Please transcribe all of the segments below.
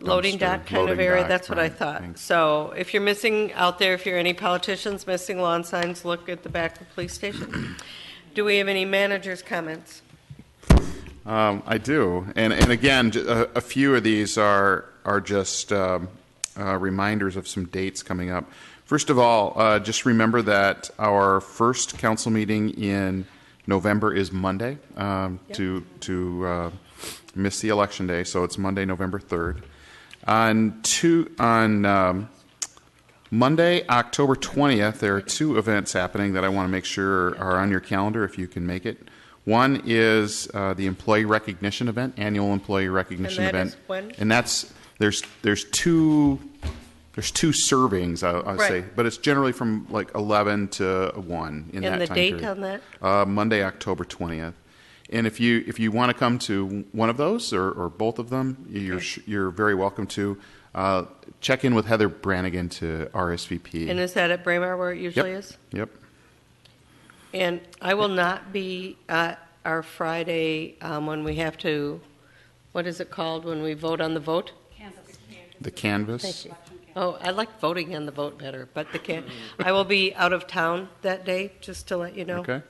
loading dock dumpster, kind of loading area, dock, that's what I right, thought. thanks. So if you're missing out there, if you're any politicians missing lawn signs, look at the back of the police station. Do we have any managers' comments? Um, I do, and and again, j- a, a few of these are are just um, uh, reminders of some dates coming up. First of all, uh, just remember that our first council meeting in November is Monday. Um, To to uh, miss the election day, so it's Monday, November third. On two on. Um, Monday, October 20th, there are two events happening that I want to make sure are on your calendar if you can make it. One is uh, the employee recognition event, annual employee recognition And that event. is when? And that's there's there's two there's two servings I, I say, Right. but it's generally from like 11 to 1 in And that the time date period. on that? Uh, Monday, October 20th. And if you if you want to come to one of those or, or both of them, you're sh you're very welcome to. Uh, check in with Heather Brannigan to RSVP. And is that at Braemar where it yep. usually is? Yep. And I will not be at our Friday um, when we have to, what is it called, when we vote on the vote? The canvas. Oh, I like voting on the vote better, but the can, I will be out of town that day, just to let you know. Okay.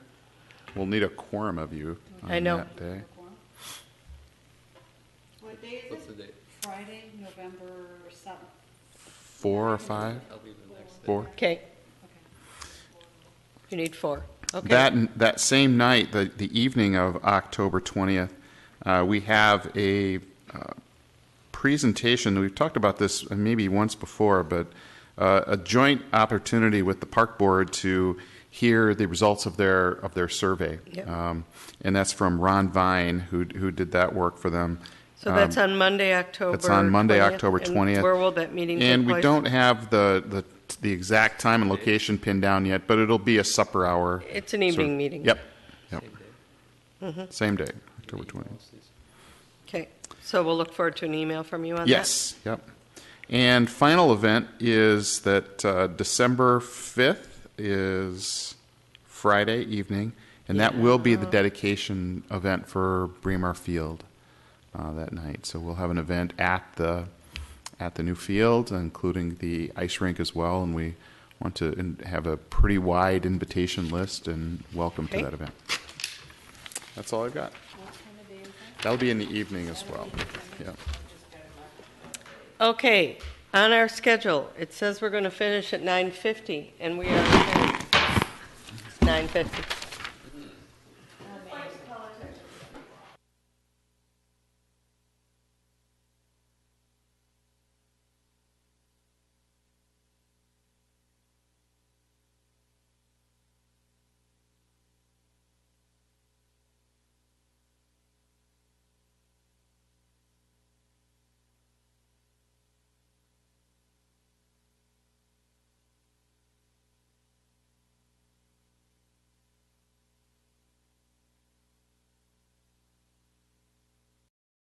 We'll need a quorum of you. On I know. That day. What day is it? Friday, November seventh. Four or five. Four. Okay. You need four. Okay. That, that same night, the, the evening of October 20th, uh, we have a uh, presentation. We've talked about this maybe once before, but uh, a joint opportunity with the park board to hear the results of their, of their survey. Yep. Um, And that's from Ron Vine, who, who did that work for them. So Um, that's on Monday, October. it's on Monday, 20th. October And 20th. Where will that meeting take And we place? don't have the, the, the exact time and location pinned down yet, but it'll be a supper hour. It's an evening meeting. Yep, yep. Mm-hmm. Same day, October 20th. Okay. So we'll look forward to an email from you on that. Yes, yep. And final event is that uh, December 5th is Friday evening, and that will be the dedication event for Bremer Field uh, that night. So we'll have an event at the, at the new field, including the ice rink as well, and we want to in- have a pretty wide invitation list and welcome to Okay. that event. That's all I've got. That'll be in the evening as well, yeah. Okay. On our schedule, it says we're going to finish at 9:50 and we are at 9:50.